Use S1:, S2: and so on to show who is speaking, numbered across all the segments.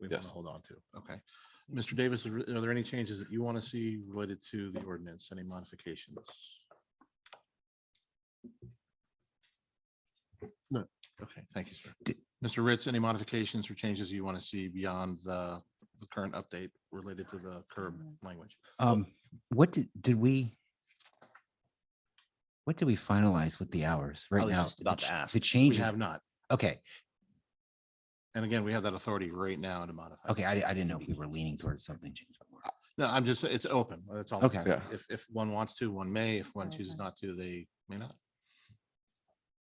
S1: we want
S2: Yes.
S1: to hold on to. Okay. Mr. Davis, are are there any changes that you want to see related to the ordinance, any modifications? No. Okay, thank you, sir. Mr. Ritz, any modifications or changes you want to see beyond the, the current update related to the curb language?
S3: Um, what did, did we? What did we finalize with the hours right
S4: was
S3: now?
S4: just about
S3: the
S4: to
S3: ch-
S4: ask.
S3: The
S4: We
S1: We
S3: changes,
S1: have not.
S3: okay,
S1: And again, we have that authority right now to modify.
S3: okay, I, di- I didn't know if we were leaning towards something.
S1: No, I'm just, it's open. That's all. I'm
S3: Okay.
S1: saying.
S2: Yeah.
S1: If, if one wants to, one may. If one
S5: Okay.
S1: chooses not to, they may not.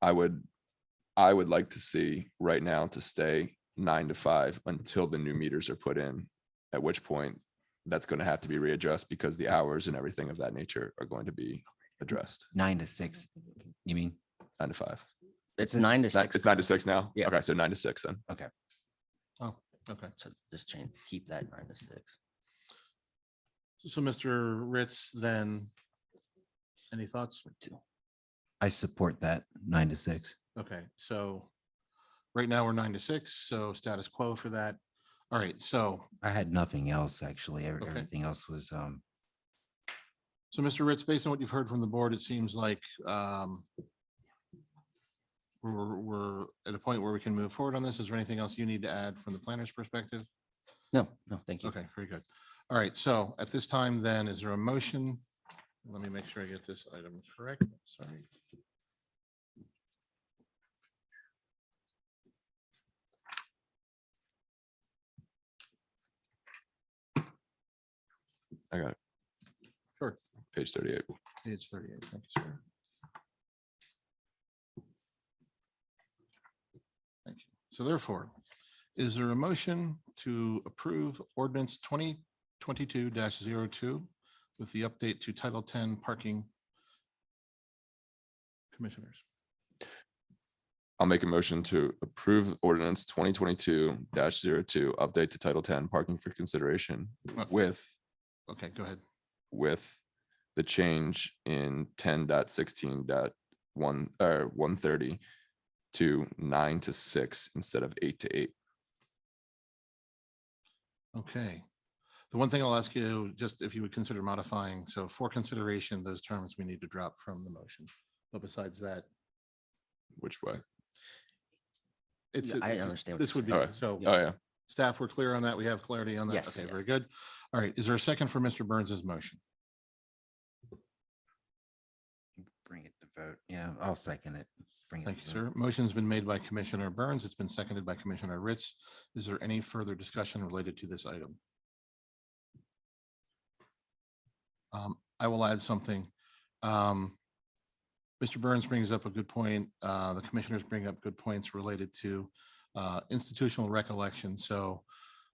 S2: I would, I would like to see right now to stay nine to five until the new meters are put in. At which point, that's going to have to be readjusted because the hours and everything of that nature are going to be addressed.
S3: Nine to six, you mean?
S2: Nine to five.
S4: It's nine to
S2: Ni-
S4: six.
S2: It's nine to six now?
S4: Yeah.
S2: Okay, so nine to six then.
S1: Oh, okay.
S4: So just change, keep that nine to six.
S1: So Mr. Ritz, then, any thoughts?
S3: I support that nine to six.
S1: Okay, so right now we're nine to six, so status quo for that. All right, so,
S3: I had nothing else, actually. Ev-
S1: Okay.
S3: Everything else was, um,
S1: so Mr. Ritz, based on what you've heard from the board, it seems like um we're, we're at a point where we can move forward on this. Is there anything else you need to add from the planner's perspective?
S4: No, no, thank you.
S1: Okay, very good. All right, so at this time then, is there a motion? Let me make sure I get this item correct, sorry.
S2: I got it.
S1: Sure.
S2: Page thirty-eight.
S1: Page thirty-eight, thank you, sir. Thank you. So therefore, is there a motion to approve ordinance twenty twenty-two 2 with the update to Title Ten parking? Commissioners,
S2: I'll make a motion to approve ordinance twenty twenty-two 2 update to title ten, parking for consideration
S1: Uh,
S2: with,
S1: okay, go ahead.
S2: with the change in ten dot sixteen dot one, or one thirty to nine to six instead of eight to eight.
S1: Okay. The one thing I'll ask you, just if you would consider modifying, so for consideration, those terms we need to drop from the motion. But besides that,
S2: Which way?
S1: it's.
S4: Yeah, I
S1: it's-
S4: understand what
S1: This
S4: you're
S1: would be,
S2: saying.
S1: so
S2: Oh, yeah.
S1: staff, we're clear on that. We have clarity on that.
S4: Yes,
S1: Okay,
S4: yes.
S1: very good. All right. Is there a second for Mr. Burns's motion?
S3: bring it to vote. Yeah, I'll second it. Bring it
S1: Thank you,
S3: to
S1: sir.
S3: vote.
S1: Motion's been made by Commissioner Burns. It's been seconded by Commissioner Ritz. Is there any further discussion related to this item? Um, I will add something. Um, Mr. Burns brings up a good point. Uh, the commissioners bring up good points related to uh, institutional recollection. So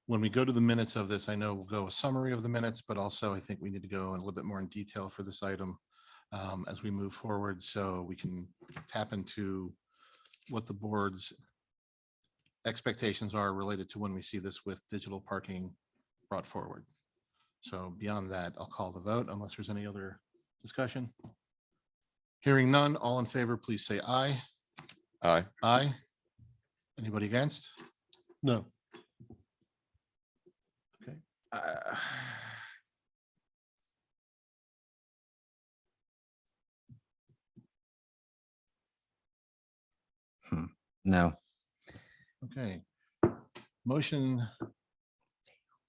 S1: when we go to the minutes of this, I know we'll go a summary of the minutes, but also I think we need to go in a little bit more in detail for this item um, as we move forward, so we can tap into what the board's expectations are related to when we see this with digital parking brought forward. So beyond that, I'll call the vote unless there's any other discussion. Hearing none, all in favor, please say aye.
S2: Aye.
S1: Aye. Anybody against? No. Okay. Uh,
S3: Hmm. No,
S1: Okay. Motion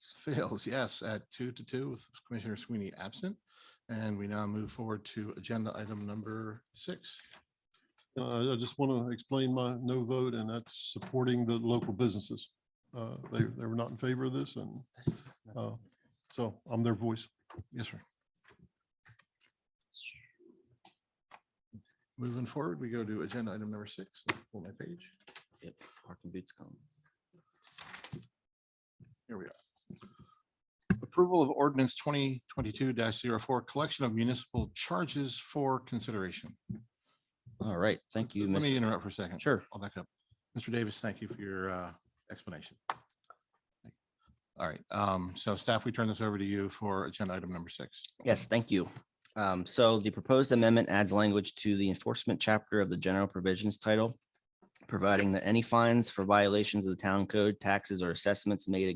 S1: fails, yes, at two to two with Commissioner Sweeney absent. And we now move forward to agenda item number six.
S6: Uh, I just want to explain my no vote, and that's supporting the local businesses. Uh, They, they were not in favor of this, and uh, so I'm their voice.
S1: Yes, sir. Moving forward, we go to agenda item number six. Pull my page.
S4: Yep, Parking boots come.
S1: Here we are. Approval of ordinance twenty twenty-two 4 collection of municipal charges for consideration.
S4: All right, thank you.
S1: Let
S4: Mr.
S1: me interrupt for a second.
S4: Sure.
S1: I'll back up. Mr. Davis, thank you for your uh, explanation. All right, um, so staff, we turn this over to you for agenda item number six.
S4: Yes, thank you. Um, so the proposed amendment adds language to the enforcement chapter of the general provisions title, providing that any fines for violations of the town code, taxes or assessments made